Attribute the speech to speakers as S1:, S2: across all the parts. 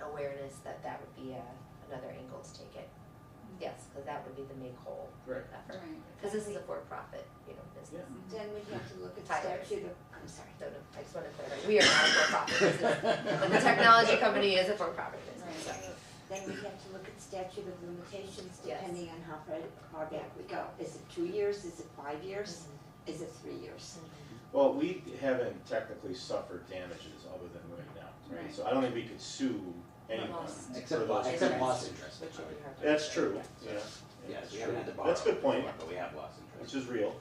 S1: awareness that that would be a, another angle to take it. Yes, because that would be the make whole
S2: Correct.
S1: effort.
S3: Right.
S1: Because this is a for-profit, you know, business.
S4: Then we'd have to look at
S1: Tyler.
S4: statute of,
S1: I'm sorry, no, no, I just want to clarify, we are not a for-profit business, but the technology company is a for-profit business, so.
S4: then we'd have to look at statute of limitations
S1: Yes.
S4: depending on how far, far back we go. Is it two years, is it five years, is it three years?
S2: Well, we haven't technically suffered damages other than right now, right?
S3: Right.
S2: So I don't think we could sue anyone
S1: Lost.
S2: for
S5: Except, lo-
S2: those.
S5: except
S2: damages.
S5: lost interest.
S1: Which would be hard.
S2: That's true, yeah.
S5: Yes,
S2: that's
S5: we haven't
S2: true.
S5: had to borrow.
S2: That's a good point,
S5: But we have lost interest.
S2: which is real,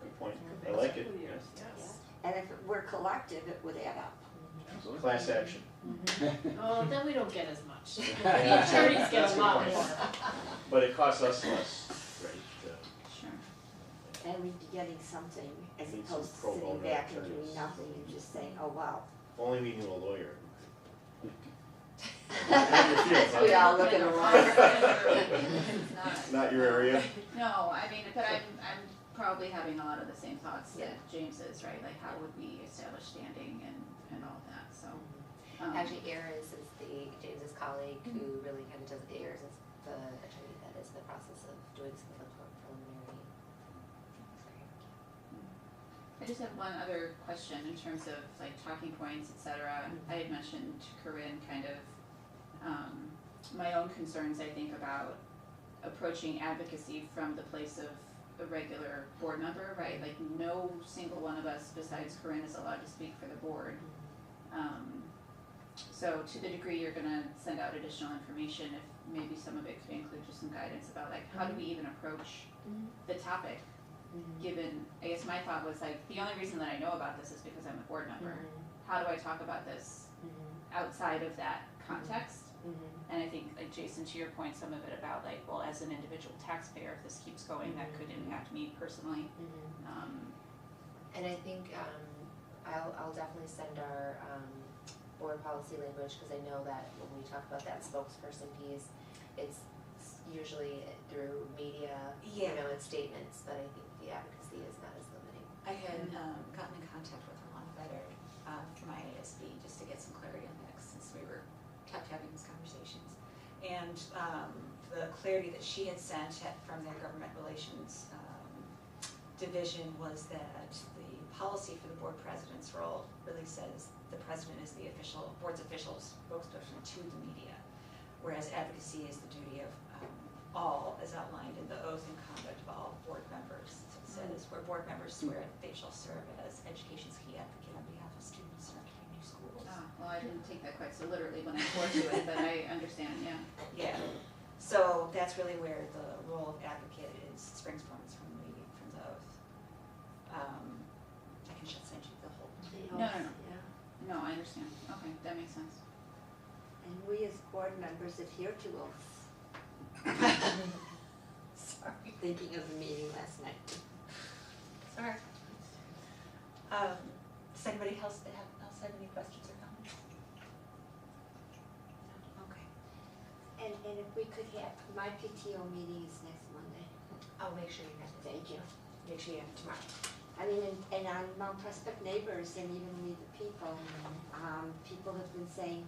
S2: good point, I like it, yes.
S4: And if it were collective, it would add up.
S5: Absolutely.
S2: Class action.
S6: Oh, then we don't get as much. The
S5: Yeah.
S6: attorneys
S2: That's
S6: get
S2: a
S6: a
S2: good
S6: lot
S2: point.
S6: more.
S2: But it costs us less, right? to-
S3: Sure.
S4: And we'd be getting something as
S2: Need some
S4: opposed to
S2: pro
S4: sitting
S2: bono
S4: back and
S2: attorneys.
S4: doing nothing and just saying, oh, wow.
S2: Only we knew a lawyer.
S4: We all look at a
S2: lawyer.
S3: It's not.
S2: Not your area?
S3: No, I mean, but I'm, I'm probably having a lot of the same thoughts that
S1: Yeah.
S3: James is, right? Like, how would we establish standing and, and all of that, so. um,
S1: Actually, Ayers is the, James's colleague who really kind of does, Ayers is the attorney that is in the process of doing some of the preliminary.
S3: I just have one other question in terms of like talking points, et cetera. I had mentioned to Corinne kind of um, my own concerns, I think, about approaching advocacy from the place of a regular board member, right? Like no single one of us besides Corinne is allowed to speak for the board. Um, so to the degree you're gonna send out additional information, if maybe some of it could include just some guidance about like, how do we even approach
S1: Mhm.
S3: the topic? given, I guess my thought was like, the only reason that I know about this is because I'm a board member. How do I talk about this Mm-hmm. outside of that context? And I think, like Jason, to your point, some of it about like, well, as an individual taxpayer, if this keeps going, that could impact me personally. Um,
S1: Mm-hmm. And I think, um, I'll, I'll definitely send our, um, board policy language, cause I know that when we talk about that spokesperson piece, it's usually through media, you
S7: Yeah.
S1: know, and statements, but I think the advocacy is not as limiting.
S7: I had um, gotten in contact with Ramon Vedder um, from IASB just to get some clarity on that, since we were kept having these conversations. And um, the clarity that she had sent had- from their government relations um, division was that the policy for the board president's role really says the president is the official, board's official spokesperson to the media, whereas advocacy is the duty of um, all, as outlined in the oath and conduct of all board members. So it says, where board members swear they shall serve as education's key advocate on behalf of students in our community schools.
S3: ah, well, I didn't take that quite so literally when I poured to it, but I understand, yeah.
S7: Yeah, so that's really where the role of advocate is, springs from, is from the, from the oath. Um, I can just send you the whole
S3: No, no, no. No, I understand. Okay, that makes sense.
S4: And we as board members adhere to oaths. Sorry. Thinking of the meeting last night.
S7: Sorry. Um, does anybody else that have, else have any questions or comments? No? Okay,
S4: And, and if we could have, my PTO meeting is next Monday.
S1: I'll make sure you have it,
S4: Thank you.
S1: make sure you have it tomorrow.
S4: I mean, and, and on Mount Prospect neighbors and even we the people, um, people have been saying,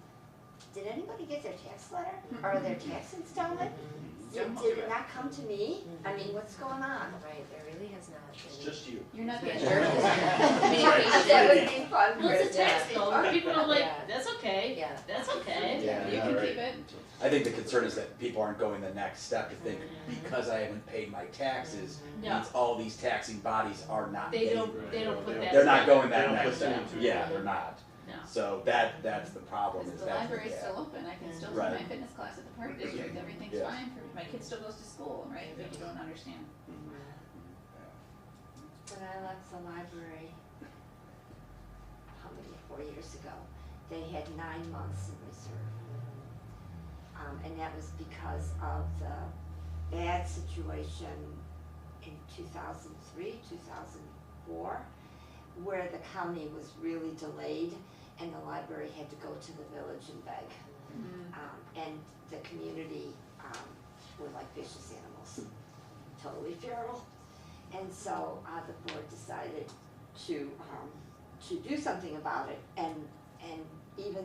S4: did anybody get their tax letter? Are their taxes stolen? Did, did it not come to me? I mean, what's going on?
S1: Right, there really has not been.
S2: It's just you.
S3: You're not the
S1: Yeah.
S4: That would be fun.
S6: Well, it's a
S1: Yeah.
S6: tax bill, people are
S1: Yeah.
S6: like, that's okay,
S1: Yeah.
S6: that's okay,
S2: Yeah,
S6: you can
S2: yeah,
S6: keep it.
S5: I think the concern is that people aren't going the next step to think,
S6: Mm.
S5: because I haven't paid my taxes,
S6: No.
S5: means all these taxing bodies are not
S6: They
S5: getting.
S6: don't, they don't put that.
S5: They're not going
S2: They
S5: that
S2: don't
S5: next
S2: put two
S5: step,
S2: and two
S5: yeah,
S2: together.
S5: they're not.
S6: No.
S5: So that, that's the problem,
S3: Because
S5: is
S3: the
S5: that,
S3: library's
S5: yeah.
S3: still open, I can still do
S5: Right.
S3: my fitness class at the park district, everything's
S5: Yeah.
S3: fine for me, my kid still goes to school, right, but you don't understand.
S4: When I left the library, how many, four years ago, they had nine months in reserve. Um, and that was because of the bad situation in two thousand three, two thousand four, where the county was really delayed and the library had to go to the village and beg.
S3: Mm-hmm.
S4: Um, and the community, um, were like vicious animals, totally feral. And so, uh, the board decided to, um, to do something about it and, and even